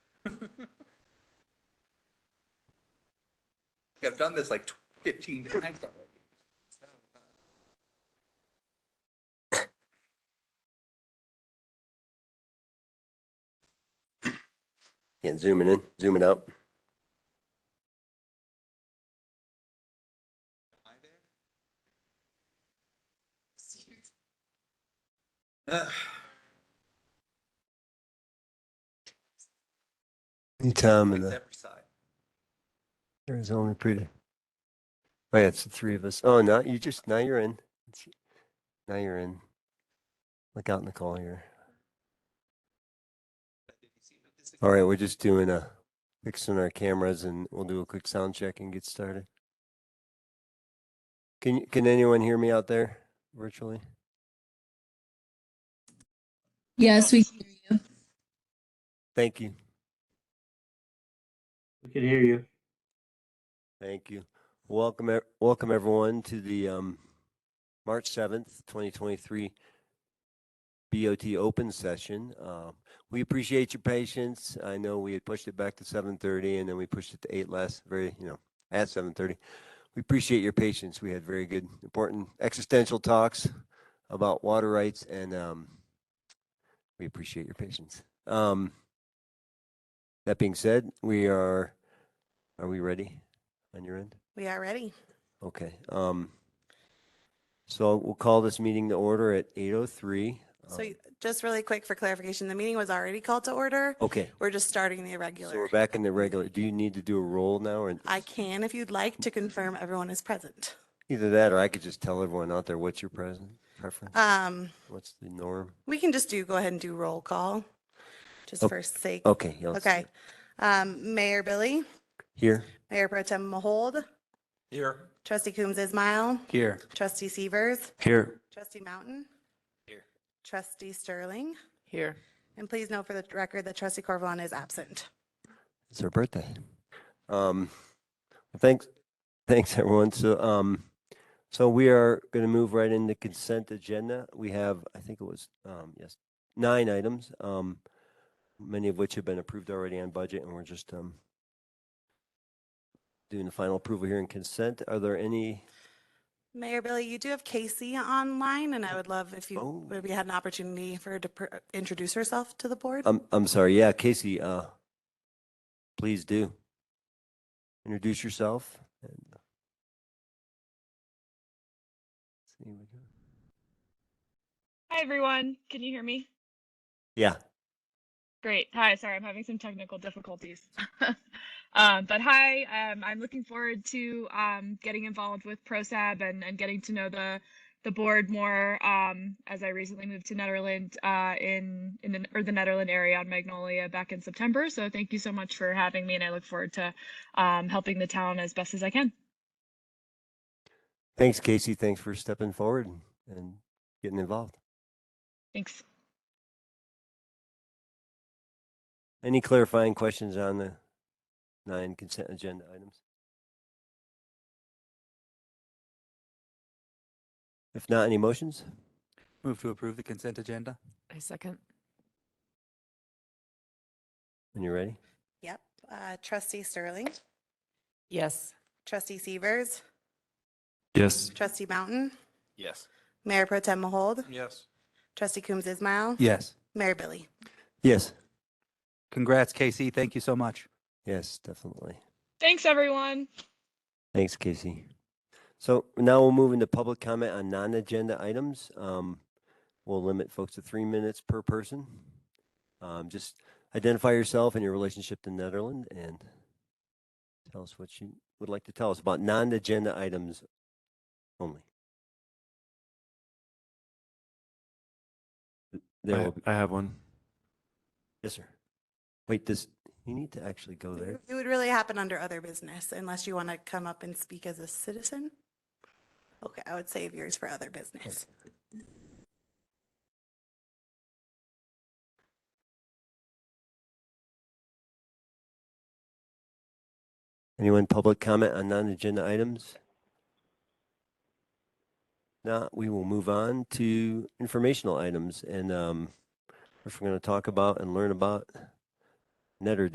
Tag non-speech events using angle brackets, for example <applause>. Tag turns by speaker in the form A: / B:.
A: I've done this like tw- fifteen times already.
B: Yeah, zooming in, zooming out.
A: Ugh.
B: Anytime in
A: It's
B: the
A: every side.
B: Arizona pretty. Oh yeah, it's the three of us. Oh, now you just, now you're in. It's- Now you're in. Look out in the call here. All right, we're just doing a, fixing our cameras and we'll do a quick sound check and get started. Can, you- can anyone hear me out there virtually?
C: Yes, we can hear you.
B: Thank you.
D: We can hear you.
B: Thank you. Welcome, ev- welcome everyone to the um, March 7th, 2023 BOT open session. Uh, We appreciate your patience. I know we had pushed it back to 7:30 and then we pushed it to 8 last, very, you know, at 7:30. We appreciate your patience. We had very good, important existential talks about water rights and um, we appreciate your patience. Um, That being said, we are, are we ready? on your end?
E: We are ready.
B: Okay. Um, so we'll call this meeting to order at eight oh three.
E: So y- just really quick for clarification, the meeting was already called to order.
B: Um, Okay,
E: We're just starting the
B: so we're
E: irregular.
B: back in the regular. Do you need to do a roll now or?
E: I can, if you'd like, to confirm everyone is present.
B: Either that or I could just tell everyone out there, what's your present preference?
E: Um,
B: What's the norm?
E: we can just do, go ahead and do roll call, just
B: Oh,
E: for sake.
B: Okay. yeah, let's do
E: Okay.
B: it.
E: Um, Mayor Billy,
B: Here,
E: Mayor Pro Tem Mahold,
A: Here.
E: Trustee Coombs Ismail,
D: Here.
E: Trustee Severs,
D: Here.
E: Trustee Mountain.
A: Here.
E: Trustee Sterling,
F: Here.
E: and please note for the record that Trustee Corvallon is absent.
B: it's her birthday. Um, thanks, thanks everyone. So, um, so we are going to move right into consent agenda. We have, I think it was, um, yes, nine items, um, many of which have been approved already on budget, and we're just um, doing the final approval here in consent. Are there any?
E: Mayor Billy, you do have Casey online, and I would love if you,
B: Oh.
E: if we had an opportunity for her to pr- introduce herself to the board.
B: I'm I'm sorry. Yeah, Casey. Uh, please do introduce yourself. And... See what we got.
G: Hi, everyone. Can you hear me?
B: Yeah.
G: Great. Hi. Sorry, I'm having some technical difficulties. <laughs> um, but hi, um, I'm looking forward to um, getting involved with ProSab and, and getting to know the the board more um, as I recently moved to Netherland uh, in in the, or the Netherland area on Magnolia back in September. So thank you so much for having me, and I look forward to um, helping the town as best as I can.
B: Thanks, Casey. Thanks for stepping forward and- and getting involved.
G: Thanks.
B: Any clarifying questions on the nine consent agenda items? If not, any motions?
D: Move to approve the consent agenda?
F: I second.
B: When you're ready.
E: Yep. Uh, Trustee Sterling,
F: Yes.
E: Trustee Severs,
D: Yes.
E: Trustee Mountain,
A: Yes.
E: Mayor Pro Tem Mahold,
A: Yes.
E: Trustee Coombs Ismail,
D: Yes.
E: Mayor Billy.
B: Yes.
D: Congrats, Casey. Thank you so much.
B: Yes, definitely.
G: Thanks, everyone.
B: Thanks, Casey. So now we'll move into public comment on non-agenda items. Um, we'll limit folks to three minutes per person. Um, just identify yourself and your relationship to Netherland and tell us what you would like to tell us about non-agenda items only. There
H: I,
B: will be,
H: I have one.
B: yes, sir. Wait, this, you need to actually go there.
E: It would really happen under other business unless you want to come up and speak as a citizen. Okay, I would save yours for other business.
B: Anyone public comment on non-agenda items? Not, we will move on to informational items and um, if we're going to talk about and learn about Netter